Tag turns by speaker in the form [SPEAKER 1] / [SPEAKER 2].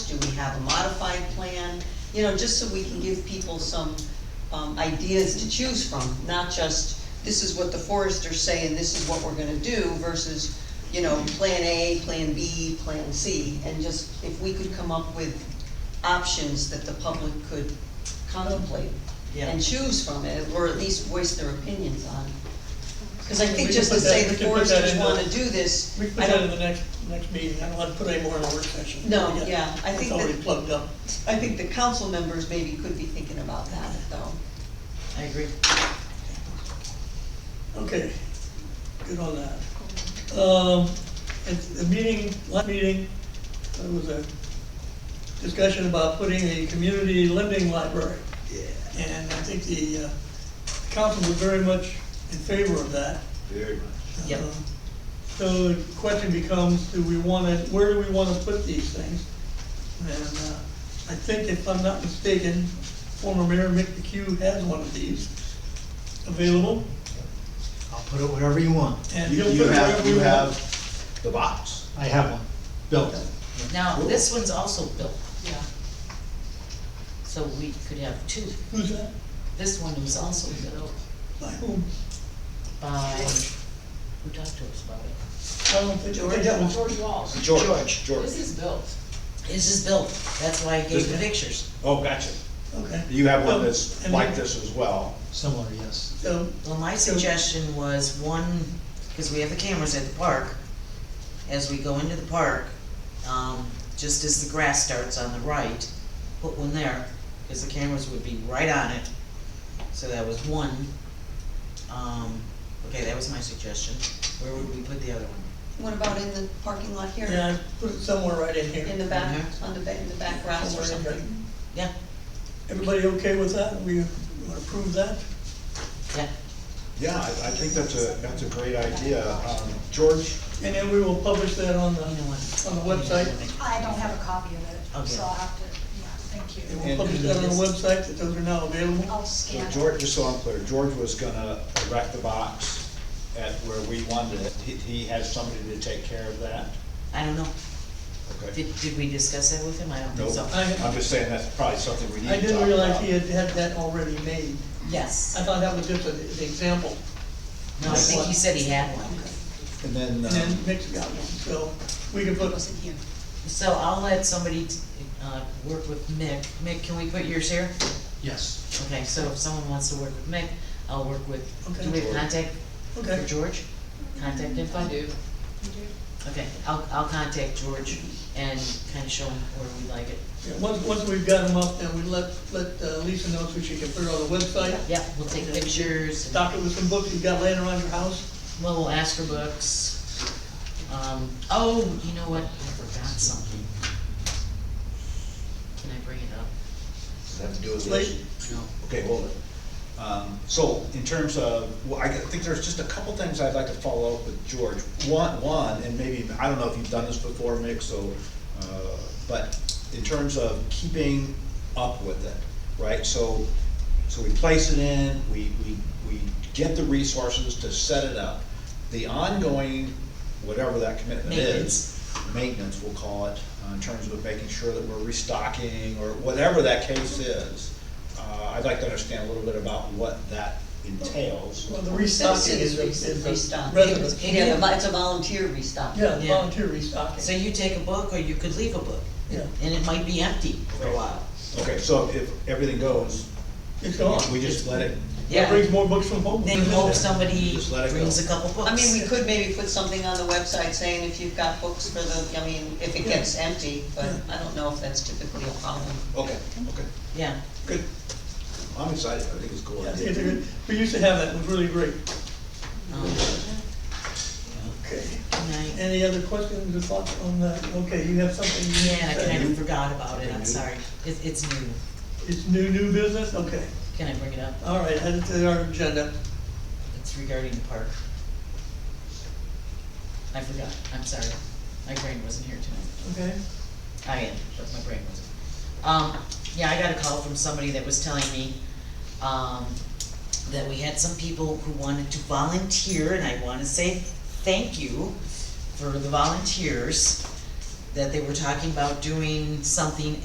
[SPEAKER 1] we have a modified plan? You know, just so we can give people some, um, ideas to choose from, not just, this is what the foresters say and this is what we're gonna do versus, you know, plan A, plan B, plan C, and just, if we could come up with options that the public could contemplate
[SPEAKER 2] Yeah.
[SPEAKER 1] and choose from it, or at least voice their opinions on. Cause I
[SPEAKER 3] We
[SPEAKER 1] think
[SPEAKER 3] can
[SPEAKER 1] just to
[SPEAKER 3] put that-
[SPEAKER 1] say the
[SPEAKER 3] we can put that
[SPEAKER 1] foresters
[SPEAKER 3] in the-
[SPEAKER 1] wanna do this,
[SPEAKER 3] We can
[SPEAKER 1] I
[SPEAKER 3] put that in
[SPEAKER 1] don't,
[SPEAKER 3] the next, next meeting, I don't want to put any more in the work session.
[SPEAKER 1] No, yeah, I think
[SPEAKER 3] It's already
[SPEAKER 1] that-
[SPEAKER 3] plugged up.
[SPEAKER 1] I think the council members maybe could be thinking about that though.
[SPEAKER 2] I agree.
[SPEAKER 3] Okay, good on that. Um, at the meeting, last meeting, there was a discussion about putting a community lending library. And I think the, uh, council was very much in favor of that.
[SPEAKER 4] Very much.
[SPEAKER 2] Yep.
[SPEAKER 3] Um, So the question becomes, do we wanna, where do we wanna put these things? And, uh, I think if I'm not mistaken, former mayor Mick McHugh has one of these available.
[SPEAKER 5] I'll put it wherever you want.
[SPEAKER 3] And
[SPEAKER 4] You
[SPEAKER 3] he'll
[SPEAKER 4] you
[SPEAKER 3] put it
[SPEAKER 4] have,
[SPEAKER 3] wherever
[SPEAKER 4] you
[SPEAKER 3] we want.
[SPEAKER 4] have the box.
[SPEAKER 5] I have one built.
[SPEAKER 2] Now, this one's also built,
[SPEAKER 1] Yeah.
[SPEAKER 2] so we could have two.
[SPEAKER 3] Who's that?
[SPEAKER 2] This one was also built
[SPEAKER 3] By whom?
[SPEAKER 2] by, who talked to us about it?
[SPEAKER 3] I don't think, I think that was,
[SPEAKER 6] George Walsh.
[SPEAKER 4] George, George.
[SPEAKER 6] This is built.
[SPEAKER 2] This is built, that's why I gave the pictures.
[SPEAKER 4] Oh, gotcha.
[SPEAKER 3] okay.
[SPEAKER 4] You have
[SPEAKER 3] Um,
[SPEAKER 4] one that's
[SPEAKER 3] and
[SPEAKER 4] like
[SPEAKER 3] then-
[SPEAKER 4] this as well.
[SPEAKER 5] Similar, yes.
[SPEAKER 3] So,
[SPEAKER 2] Well, my suggestion was one, because we have the cameras at the park, as we go into the park, um, just as the grass starts on the right, put one there, because the cameras would be right on it. So that was one. Um, okay, that was my suggestion. Where would we put the other one?
[SPEAKER 1] What about in the parking lot here?
[SPEAKER 3] yeah, I put it somewhere right in here.
[SPEAKER 1] In the back,
[SPEAKER 2] Mhm.
[SPEAKER 1] on the back, in the back grass or
[SPEAKER 3] Somewhere in here.
[SPEAKER 1] something?
[SPEAKER 2] Yeah,
[SPEAKER 3] Everybody okay with that? We wanna approve that?
[SPEAKER 2] yeah.
[SPEAKER 4] Yeah, I, I think that's a, that's a great idea. Um, George,
[SPEAKER 3] And then we will publish that on the,
[SPEAKER 2] oh, You know what?
[SPEAKER 3] on the website.
[SPEAKER 7] I don't have a copy of it,
[SPEAKER 2] Okay.
[SPEAKER 7] so I'll have to, yeah, thank
[SPEAKER 3] And
[SPEAKER 7] you.
[SPEAKER 3] we'll publish that on the website, that those are now available.
[SPEAKER 7] I'll scan
[SPEAKER 4] so
[SPEAKER 7] it.
[SPEAKER 4] George, just so I'm clear, George was gonna erect the box at where we wanted it. He, he has somebody to take care of that.
[SPEAKER 2] I don't know.
[SPEAKER 4] Okay.
[SPEAKER 2] Did, did we discuss that with him? I don't think
[SPEAKER 4] Nope.
[SPEAKER 2] so.
[SPEAKER 3] I-
[SPEAKER 4] I'm just saying that's probably something we need
[SPEAKER 3] I
[SPEAKER 4] to talk
[SPEAKER 3] didn't
[SPEAKER 4] about.
[SPEAKER 3] realize he had had that already made. I
[SPEAKER 2] Yes.
[SPEAKER 3] thought that was just an an example,
[SPEAKER 2] No, I think he said he had one.
[SPEAKER 4] And then,
[SPEAKER 3] and then
[SPEAKER 4] um,
[SPEAKER 3] Nick's got one, so we can put,
[SPEAKER 2] So I'll let somebody, uh, work with Mick. Mick, can we put yours here?
[SPEAKER 5] Yes.
[SPEAKER 2] Okay, so if someone wants to work with Mick, I'll work with, do we have
[SPEAKER 4] Okay.
[SPEAKER 2] contact for
[SPEAKER 3] okay,
[SPEAKER 2] George? Contact info?
[SPEAKER 6] I do.
[SPEAKER 2] Okay, I'll, I'll contact George and kind of show him where we like it.
[SPEAKER 3] Yeah, once, once we've got them up, then we let, let uh, Lisa know so she can put it on the website.
[SPEAKER 2] Yeah, we'll take pictures, and-
[SPEAKER 3] Stock it with some books you've got laying around your house.
[SPEAKER 2] well, we'll ask for books. Um, oh, you know what, I forgot something. Can I bring it up?
[SPEAKER 4] does that have to do with
[SPEAKER 3] Late.
[SPEAKER 4] this? Okay, hold it. Um, So in terms of, well, I think there's just a couple things I'd like to follow up with George. One, one, and maybe, I don't know if you've done this before, Mick, so, uh, but in terms of keeping up with it, right? So, so we place it in, we, we, we get the resources to set it up. The ongoing, whatever that commitment
[SPEAKER 2] Maintenance.
[SPEAKER 4] is, maintenance, we'll call it, uh, in terms of making sure that we're restocking or whatever that case is. Uh, I'd like to understand a little bit about what that entails.
[SPEAKER 3] Well, the
[SPEAKER 1] Citizen
[SPEAKER 3] restocking is a, is
[SPEAKER 1] restock.
[SPEAKER 2] It
[SPEAKER 3] a resident.
[SPEAKER 2] was-
[SPEAKER 1] Yeah, the vo- it's a volunteer restock.
[SPEAKER 3] Yeah,
[SPEAKER 2] Yeah.
[SPEAKER 3] volunteer restocking.
[SPEAKER 2] So you take a book, or you could leave a book,
[SPEAKER 3] Yeah,
[SPEAKER 2] and it might be empty for a
[SPEAKER 4] Okay.
[SPEAKER 2] while.
[SPEAKER 4] Okay, so if everything goes,
[SPEAKER 3] it's on.
[SPEAKER 4] we just let it,
[SPEAKER 3] That brings more books from home.
[SPEAKER 2] Then hope somebody
[SPEAKER 4] Just let it go.
[SPEAKER 2] brings a couple books.
[SPEAKER 1] I mean, we could maybe put something on the website saying if you've got books for the, I mean, if it gets empty, but I don't know if that's typically a problem.
[SPEAKER 4] okay, okay,
[SPEAKER 2] Yeah,
[SPEAKER 4] good. I'm excited, I think it's a cool.
[SPEAKER 3] Yeah, I think
[SPEAKER 4] idea.
[SPEAKER 3] it's a good- We used to have that, it was really great.
[SPEAKER 2] um,
[SPEAKER 3] Okay.
[SPEAKER 2] and I-
[SPEAKER 3] Any other questions or thoughts on that? Okay, you have something you need
[SPEAKER 2] Yeah, I
[SPEAKER 3] to
[SPEAKER 2] kind
[SPEAKER 3] say?
[SPEAKER 2] of forgot about it, I'm
[SPEAKER 4] Okay.
[SPEAKER 2] sorry. It, it's new.
[SPEAKER 3] It's new, new business? Okay.
[SPEAKER 2] Can I bring it up?
[SPEAKER 3] All right, add it to our agenda.
[SPEAKER 2] It's regarding the park. I forgot, I'm sorry. My brain wasn't here tonight.
[SPEAKER 3] Okay?
[SPEAKER 2] I am, but my brain wasn't. Um, yeah, I got a call from somebody that was telling me, um, that we had some people who wanted to volunteer, and I wanna say thank you for the volunteers. that they were talking about doing something